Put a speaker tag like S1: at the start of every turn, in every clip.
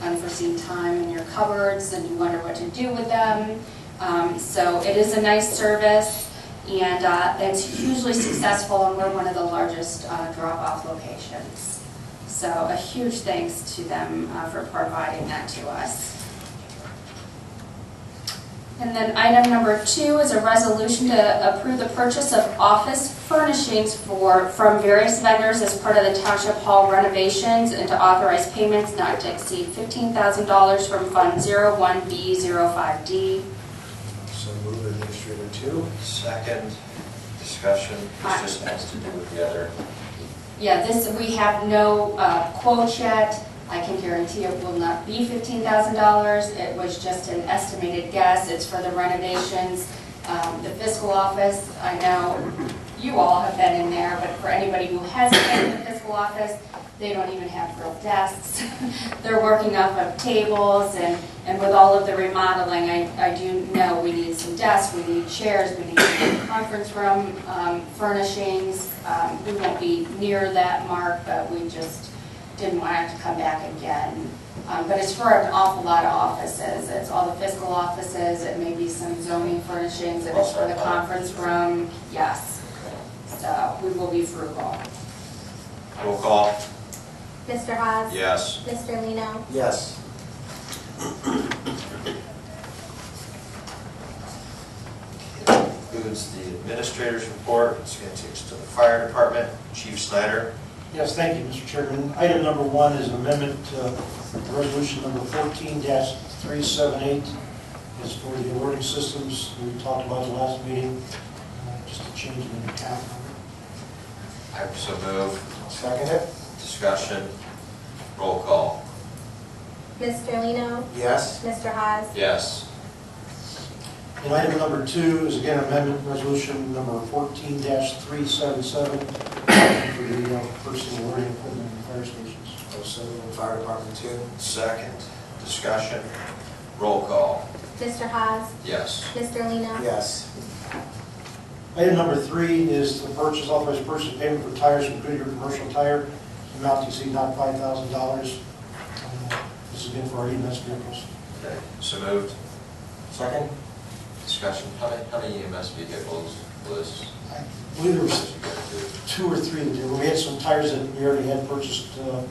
S1: unforeseen time in your cupboards and you wonder what to do with them. Um, So it is a nice service and uh, it's hugely successful and we're one of the largest uh, drop-off locations. So a huge thanks to them uh, for providing that to us. And then item number two is a resolution to approve the purchase of office furnishings for, from various vendors as part of the Township Hall renovations and to authorize payments not to exceed $15,000 from Fund 01B05D.
S2: So move administrator two.
S3: Second discussion,
S1: Aye.
S3: this just has to do with the other.
S1: Yeah, this, we have no uh, quote yet. I can guarantee it will not be $15,000. It was just an estimated guess. It's for the renovations. Um, The fiscal office, I know you all have been in there, but for anybody who hasn't been in the fiscal office, they don't even have real desks. They're working off of tables and, and with all of the remodeling, I, I do know we need some desks, we need chairs, we need conference room um, furnishings. Um, We won't be near that mark, but we just didn't want to have to come back again. Um, But it's for an awful lot of offices. It's all the fiscal offices, it may be some zoning furnishings, it is for the conference room, yes. So we will be frugal.
S3: Roll call,
S4: Mr. Haas.
S3: yes.
S4: Mr. Lino.
S2: Yes.
S3: Includes the administrator's report, it's going to take us to the fire department, Chief Snyder.
S5: Yes, thank you, Mr. Chairman. Item number one is amendment to resolution number fourteen three seven eight. It's for the alerting systems we talked about the last meeting, uh, just a change in the account number.
S3: I so move,
S2: Second it?
S3: discussion, roll call,
S4: Mr. Lino.
S2: Yes.
S4: Mr. Haas.
S3: yes.
S5: And item number two is again amendment resolution number fourteen three seven seven for the uh, person alerting equipment in fire stations.
S2: Also move fire department two.
S3: Second discussion, roll call,
S4: Mr. Haas.
S3: yes.
S4: Mr. Lino.
S2: Yes.
S5: Item number three is the purchase, authorized purchase of payment for tires from Goodyear Commercial Tire, amount to exceed not five thousand dollars. This is again for our EMS vehicles.
S3: Okay, So moved,
S2: Second?
S3: discussion, how many, how many EMS vehicles was?
S5: I believe there was
S3: was it gonna
S5: two or three that did, we had some tires that we already had purchased uh,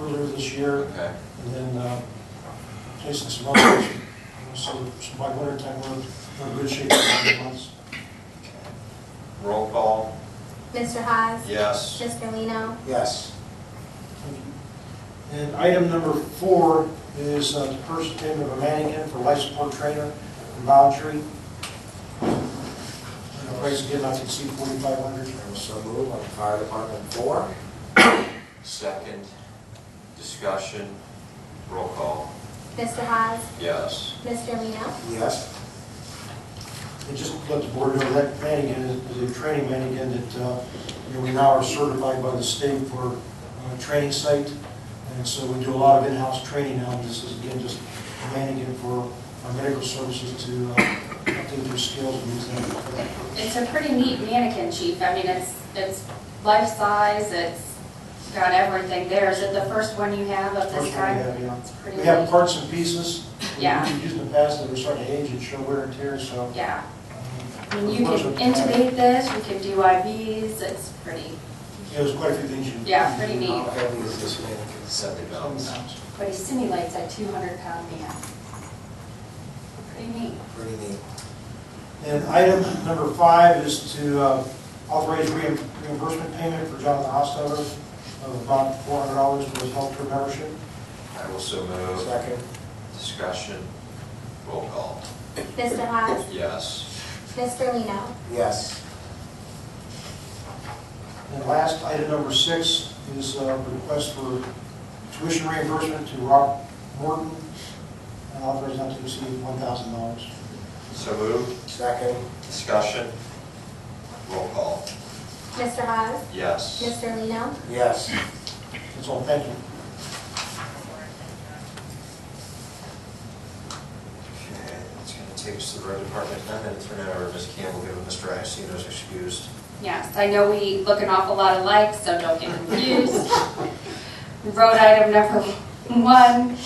S5: earlier this
S3: do?
S5: year,
S3: Okay,
S5: and then uh, placing some others. So so by winter time, we're we're in good shape for a couple months.
S3: roll call,
S4: Mr. Haas.
S3: yes.
S4: Mr. Lino.
S2: Yes.
S5: And item number four is uh, the purchase payment of a mannequin for life support trainer in Boundary. And the price again, I can see forty-five hundred.
S2: Also move on fire department four.
S3: Second, discussion, roll call,
S4: Mr. Haas.
S3: yes.
S4: Mr. Lino.
S2: Yes.
S5: And just to let the board know, that mannequin is is a training mannequin that, uh, you know, we now are certified by the state for uh, training site. And so we do a lot of in-house training now, and this is again just a mannequin for our medical services to uh, update their skills and use them for that purpose.
S1: It's a pretty neat mannequin, Chief. I mean, it's, it's life size, it's got everything there. Is it the first one you have of this
S5: First one we
S1: kind?
S5: have, yeah.
S1: It's pretty
S5: We have
S1: neat.
S5: parts and pieces.
S1: Yeah.
S5: We've used in the past that were starting to age and show wear and tear, so.
S1: Yeah,
S5: um,
S1: I mean, you
S5: parts
S1: can
S5: are-
S1: intubate this, you can do IVs, it's pretty,
S5: Yeah, there's quite a few things you.
S1: yeah, pretty
S2: How
S1: neat.
S2: heavy is this mannequin?
S3: Seventy pounds.
S1: But he simulates a 200-pound man. Pretty neat.
S2: Pretty neat.
S5: And item number five is to uh, authorize reim- reimbursement payment for Jonathan Hostover of about four hundred dollars for his healthcare membership.
S3: I will so move.
S2: Second?
S3: Discussion, roll call.
S4: Mr. Haas.
S3: Yes.
S4: Mr. Lino.
S2: Yes.
S5: And last, item number six is uh, a request for tuition reimbursement to Rob Morton, and authorized not to exceed one thousand dollars.
S3: So move.
S2: Second?
S3: Discussion, roll call.
S4: Mr. Haas.
S3: Yes.
S4: Mr. Lino.
S2: Yes.
S5: That's all, thank you.
S3: Okay, that's going to take us to the road department. I'm going to turn it over to Ms. Campbell, given Mr. Iacino's excused.
S1: Yes, I know we look an awful lot alike, so don't get confused. Road item number one